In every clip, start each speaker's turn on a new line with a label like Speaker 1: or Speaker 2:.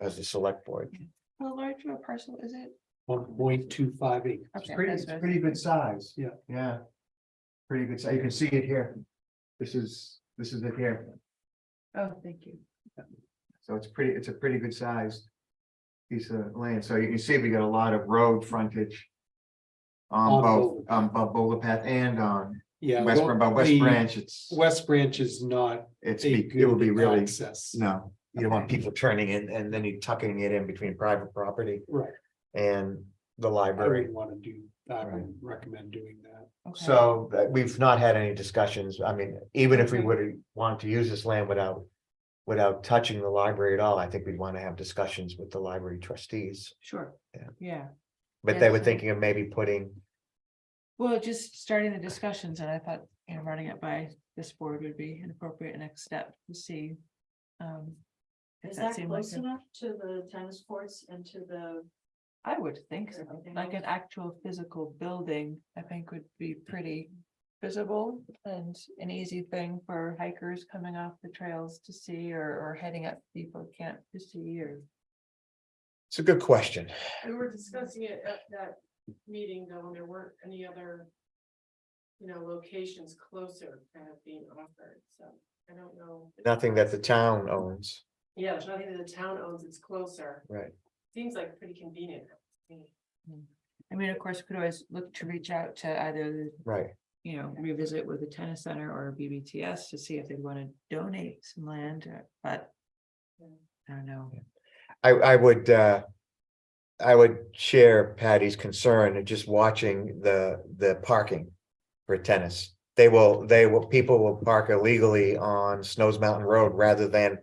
Speaker 1: as a select board.
Speaker 2: How large of a parcel is it?
Speaker 3: one point two five eight.
Speaker 2: Okay,
Speaker 3: pretty,
Speaker 2: that's
Speaker 3: it's
Speaker 2: what I
Speaker 3: pretty good size, yeah.
Speaker 1: Yeah. Pretty good, so you can see it here. This is, this is it here,
Speaker 2: Oh, thank you.
Speaker 1: so it's pretty, it's a pretty good sized. Piece of land, so you can see we got a lot of road frontage. On
Speaker 3: On
Speaker 1: both,
Speaker 3: Boulder.
Speaker 1: um, bo- Boulder Path and on
Speaker 3: Yeah.
Speaker 1: West,
Speaker 3: well,
Speaker 1: Bran- but West
Speaker 3: the
Speaker 1: Branch, it's,
Speaker 3: West Branch is not
Speaker 1: it's,
Speaker 3: a
Speaker 1: be- it will be
Speaker 3: good
Speaker 1: really,
Speaker 3: access.
Speaker 1: no. You don't want people turning in and then you tucking it in between private property
Speaker 3: Right,
Speaker 1: and the
Speaker 3: I
Speaker 1: library.
Speaker 3: wouldn't want to do, I
Speaker 1: Right.
Speaker 3: wouldn't recommend doing that.
Speaker 2: Okay.
Speaker 1: So uh, we've not had any discussions. I mean, even if we
Speaker 2: Mm-hmm.
Speaker 1: would want to use this land without. Without touching the library at all, I think we'd want to have discussions with the library trustees,
Speaker 2: Sure,
Speaker 1: Yeah.
Speaker 2: yeah.
Speaker 1: but they were
Speaker 2: Yes.
Speaker 1: thinking of maybe putting.
Speaker 2: Well, just starting the discussions and I thought, you know, running it by this board would be an appropriate next step to see. um, if
Speaker 4: Is that
Speaker 2: seemed like
Speaker 4: close
Speaker 2: a-
Speaker 4: enough to the tennis courts and to the,
Speaker 2: I would think so,
Speaker 4: Everything
Speaker 2: like an
Speaker 4: else?
Speaker 2: actual physical building, I think would be pretty visible and an easy thing for hikers coming off the trails to see or, or heading up people camp to see or.
Speaker 1: It's a good question.
Speaker 5: We were discussing it at that meeting, though, and there weren't any other. You know, locations closer kind of being offered, so I don't know.
Speaker 1: Nothing that the town owns,
Speaker 5: Yeah, there's nothing that the town owns, it's closer,
Speaker 1: right?
Speaker 5: seems like pretty convenient.
Speaker 2: I mean, of course, we could always look to reach out to either the
Speaker 1: Right.
Speaker 2: you know, revisit with the tennis center or BBTS to see if they want to donate some land, uh, but.
Speaker 5: Yeah.
Speaker 2: I don't know.
Speaker 1: I, I would, uh. I would share Patty's concern and just watching the, the parking for tennis. They will, they will, people will park illegally on Snows Mountain Road rather than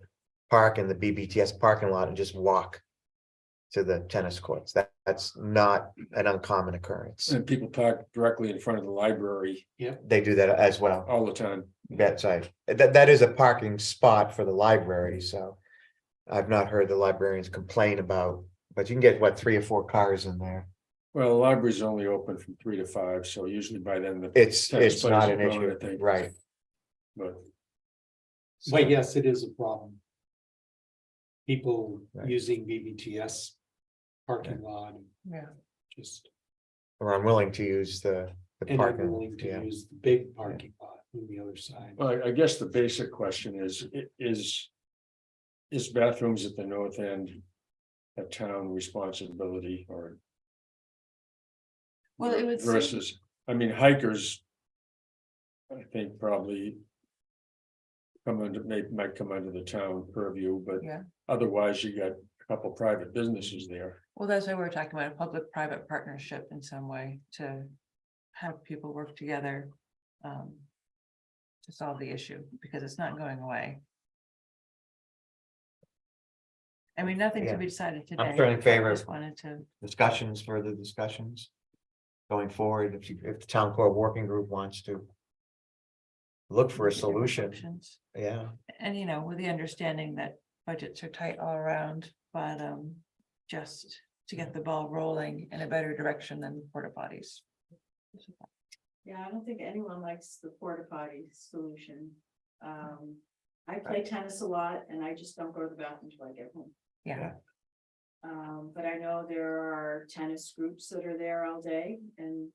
Speaker 1: park in the BBTS parking lot and just walk. To the tennis courts. That, that's not an uncommon occurrence.
Speaker 6: And people park directly in front of the library
Speaker 1: They do that as well.
Speaker 6: all the time.
Speaker 1: That's right. That, that is a parking spot for the library, so. I've not heard the librarians complain about, but you can get, what, three or four cars in there?
Speaker 6: Well, the library's only open from three to five, so usually by then the,
Speaker 1: It's,
Speaker 6: Tennis
Speaker 1: it's
Speaker 6: players
Speaker 1: not
Speaker 6: are
Speaker 1: an
Speaker 6: growing,
Speaker 1: issue,
Speaker 6: I think.
Speaker 1: right?
Speaker 6: but
Speaker 1: So-
Speaker 3: But yes, it is a problem. People
Speaker 1: Right.
Speaker 3: using BBTS parking lot,
Speaker 2: Yeah.
Speaker 3: just,
Speaker 1: Or I'm willing to use the, the
Speaker 3: and I'm
Speaker 1: parking,
Speaker 3: willing
Speaker 1: yeah,
Speaker 3: to use the big parking lot on the other side.
Speaker 6: well, I- I guess the basic question is, i- is. Is bathrooms at the north end a town responsibility or?
Speaker 2: Well, it would seem-
Speaker 6: Versus, I mean hikers. I think probably. Come under, may, might come under the town purview, but
Speaker 2: Yeah.
Speaker 6: otherwise you got a couple private businesses there.
Speaker 2: Well, that's why we're talking about a public-private partnership in some way to have people work together. um, To solve the issue because it's not going away. I mean, nothing to
Speaker 1: Yeah.
Speaker 2: be decided today.
Speaker 1: I'm still in
Speaker 2: but I
Speaker 1: favor of-
Speaker 2: just Wanted to,
Speaker 1: discussions, further discussions. Going forward, if you, if the town core working group wants to. Look for a
Speaker 2: look at different
Speaker 1: solution,
Speaker 2: options.
Speaker 1: yeah,
Speaker 2: And you know, with the understanding that budgets are tight all around, but um, just to get the ball rolling in a better direction than the porta potties.
Speaker 4: yeah, I don't think anyone likes the porta potty solution. Um, I play tennis a lot and I just don't go to the bathroom till I get home.
Speaker 2: Yeah,
Speaker 4: Um, but I know there are tennis groups that are there all day and,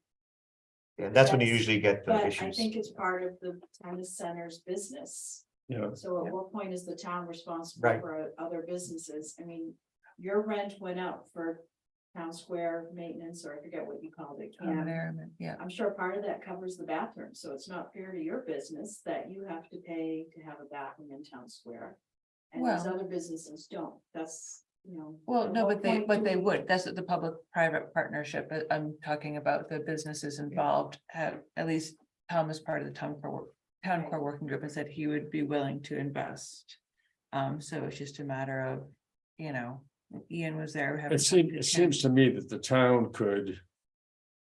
Speaker 1: and that's when you
Speaker 4: That's-
Speaker 1: usually get
Speaker 4: but
Speaker 1: the
Speaker 4: I
Speaker 1: issues.
Speaker 4: think it's part of the tennis center's business.
Speaker 6: Yeah.
Speaker 4: So
Speaker 2: Yeah.
Speaker 4: at what point is the town responsible
Speaker 1: Right.
Speaker 4: for other businesses? I mean, your rent went up for town square maintenance, or I forget what you called it. camp.
Speaker 2: environment, yeah. Um,
Speaker 4: I'm sure part of that covers the bathroom, so it's not fair to your business that you have to pay to have a bathroom in town square. And these
Speaker 2: Well-
Speaker 4: other businesses don't, that's, you know.
Speaker 2: Well,
Speaker 4: at
Speaker 2: no,
Speaker 4: what
Speaker 2: but they,
Speaker 4: point
Speaker 2: but
Speaker 4: do
Speaker 2: they
Speaker 4: we-
Speaker 2: would. That's the public-private partnership. but I'm talking about the businesses involved. Have, at least Tom is part of the town core, work- town
Speaker 4: Right.
Speaker 2: core working group and said he would be willing to invest. Um, so it's just a matter of, you know, Ian was there. having
Speaker 6: It seems,
Speaker 2: talked to
Speaker 6: it
Speaker 2: Ken.
Speaker 6: seems to me that the town could.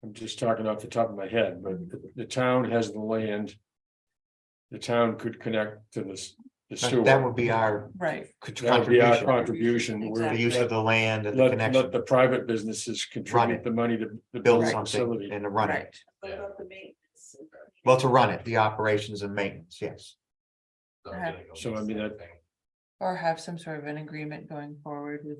Speaker 6: I'm just talking off the top of my head, but the- the town has the land. The town could connect to this, the
Speaker 1: That- That
Speaker 6: sewer.
Speaker 1: would be our
Speaker 2: Right,
Speaker 6: That would be our
Speaker 1: contribution,
Speaker 6: contribution. We're-
Speaker 1: the use of the land and the
Speaker 6: Let, let
Speaker 1: connection,
Speaker 6: the private businesses contribute the money to. the
Speaker 1: build
Speaker 6: building
Speaker 1: something
Speaker 6: facility.
Speaker 1: and to run it,
Speaker 2: right.
Speaker 4: What about the maintenance?
Speaker 1: well, to run it, the operations and maintenance, yes.
Speaker 2: Okay.
Speaker 6: So I mean, that,
Speaker 2: Or have some sort of an agreement going forward with